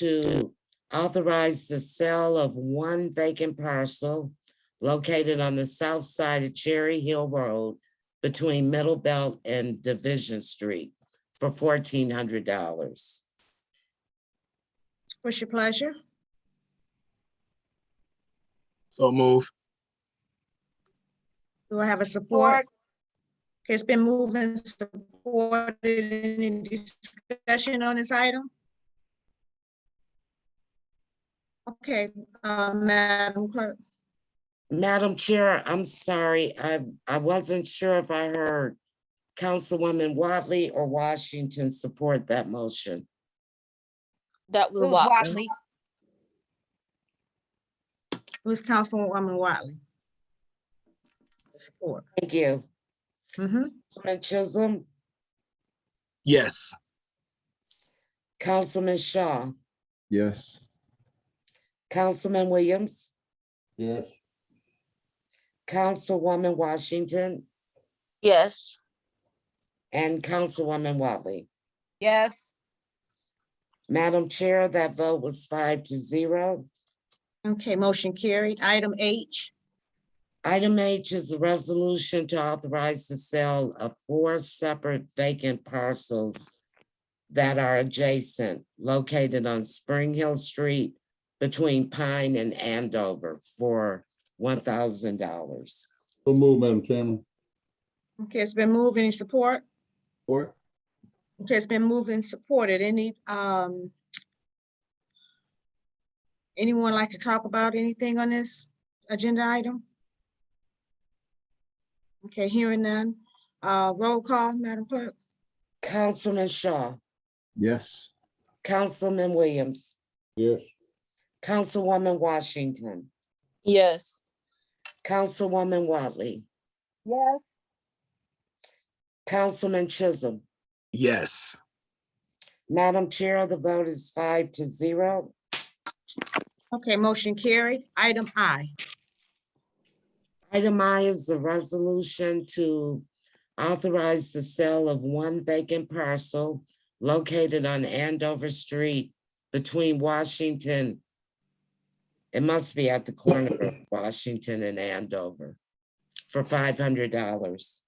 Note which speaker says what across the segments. Speaker 1: to authorize the sale of one vacant parcel located on the south side of Cherry Hill Road between Middle Belt and Division Street for fourteen hundred dollars.
Speaker 2: What's your pleasure?
Speaker 3: So move.
Speaker 2: Do I have a support? Okay, It's been moved and supported. Any discussion on this item? Okay, uh, Madam Clerk,
Speaker 1: Madam Chair, I'm sorry, I, I wasn't sure if I heard Councilwoman Watley or Washington support that motion.
Speaker 4: That was
Speaker 5: Who's
Speaker 4: Watley.
Speaker 5: Watley?
Speaker 2: who's Councilwoman Watley? Support.
Speaker 1: Thank you.
Speaker 2: Mhm.
Speaker 1: Councilman Chisholm,
Speaker 3: Yes.
Speaker 1: Councilman Shaw,
Speaker 6: Yes.
Speaker 1: Councilman Williams,
Speaker 6: Yes.
Speaker 1: Councilwoman Washington,
Speaker 4: Yes,
Speaker 1: and Councilwoman Watley.
Speaker 5: Yes,
Speaker 1: Madam Chair, that vote was five to zero.
Speaker 2: Okay, motion carried. Item H,
Speaker 1: Item H is a resolution to authorize the sale of four separate vacant parcels that are adjacent, located on Spring Hill Street between Pine and Andover for one thousand dollars.
Speaker 6: So move, Madam Chairman.
Speaker 2: okay, it's been moved. Any support?
Speaker 6: Or?
Speaker 2: Okay, it's been moved and supported. Any, um, anyone like to talk about anything on this agenda item? Okay, hearing none. Uh, roll call, Madam Clerk.
Speaker 1: Councilman Shaw,
Speaker 6: Yes.
Speaker 1: Councilman Williams,
Speaker 6: Yes.
Speaker 1: Councilwoman Washington,
Speaker 4: yes,
Speaker 1: Councilwoman Watley.
Speaker 5: Yes.
Speaker 1: Councilman Chisholm,
Speaker 3: Yes.
Speaker 1: Madam Chair, the vote is five to zero.
Speaker 2: Okay, motion carried. Item I.
Speaker 1: Item I is the resolution to authorize the sale of one vacant parcel located on Andover Street between Washington. It must be at the corner of Washington and Andover for five hundred dollars.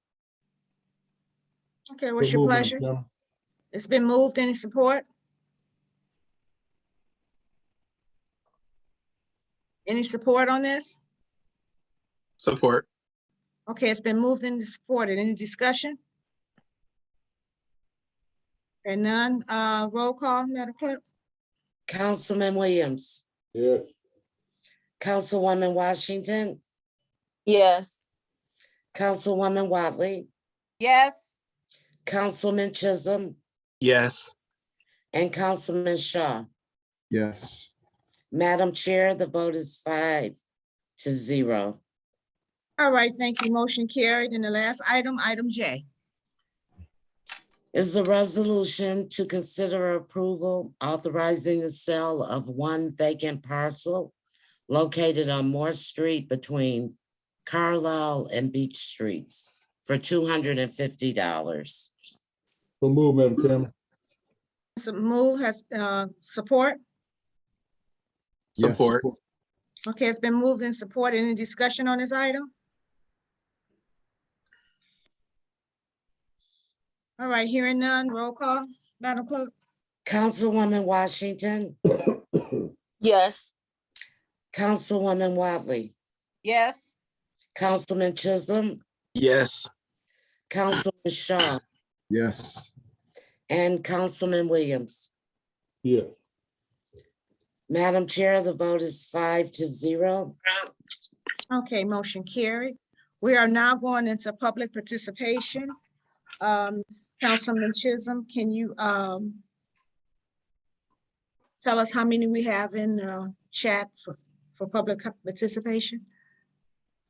Speaker 2: Okay, what's your pleasure? It's been moved. Any support? Any support on this?
Speaker 3: Support.
Speaker 2: Okay, it's been moved and supported. Any discussion? And none, uh, roll call, Madam Clerk?
Speaker 1: Councilman Williams,
Speaker 6: Yes.
Speaker 1: Councilwoman Washington,
Speaker 4: yes,
Speaker 1: Councilwoman Watley,
Speaker 5: yes,
Speaker 1: Councilman Chisholm,
Speaker 3: Yes.
Speaker 1: and Councilman Shaw.
Speaker 6: Yes.
Speaker 1: Madam Chair, the vote is five to zero.
Speaker 2: All right, thank you. Motion carried. And the last item, item J.
Speaker 1: Is the resolution to consider approval authorizing the sale of one vacant parcel located on Moore Street between Carlisle and Beach Streets for two hundred and fifty dollars.
Speaker 6: So move, Madam Chairman.
Speaker 2: So move has, uh, support.
Speaker 6: Yes.
Speaker 3: Support.
Speaker 2: Okay, it's been moved and supported. Any discussion on this item? All right, hearing none, roll call, Madam Clerk?
Speaker 1: Councilwoman Washington,
Speaker 4: yes,
Speaker 1: Councilwoman Watley,
Speaker 5: yes,
Speaker 1: Councilman Chisholm,
Speaker 3: Yes.
Speaker 1: Councilman Shaw,
Speaker 6: Yes.
Speaker 1: and Councilman Williams.
Speaker 6: Yes.
Speaker 1: Madam Chair, the vote is five to zero.
Speaker 2: Okay, motion carried. We are now going into public participation. Um, Councilman Chisholm, can you, um, tell us how many we have in, uh, chat for, for public co- participation?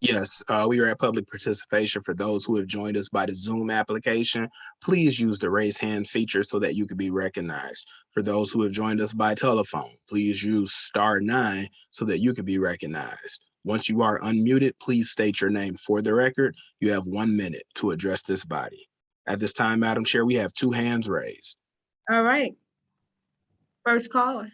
Speaker 3: Yes. Uh, we are at public participation for those who have joined us by the Zoom application. Please use the raise hand feature so that you can be recognized. For those who have joined us by telephone, please use star nine so that you can be recognized. Once you are unmuted, please state your name for the record. You have one minute to address this body. At this time, Madam Chair, we have two hands raised.
Speaker 2: All right. First caller.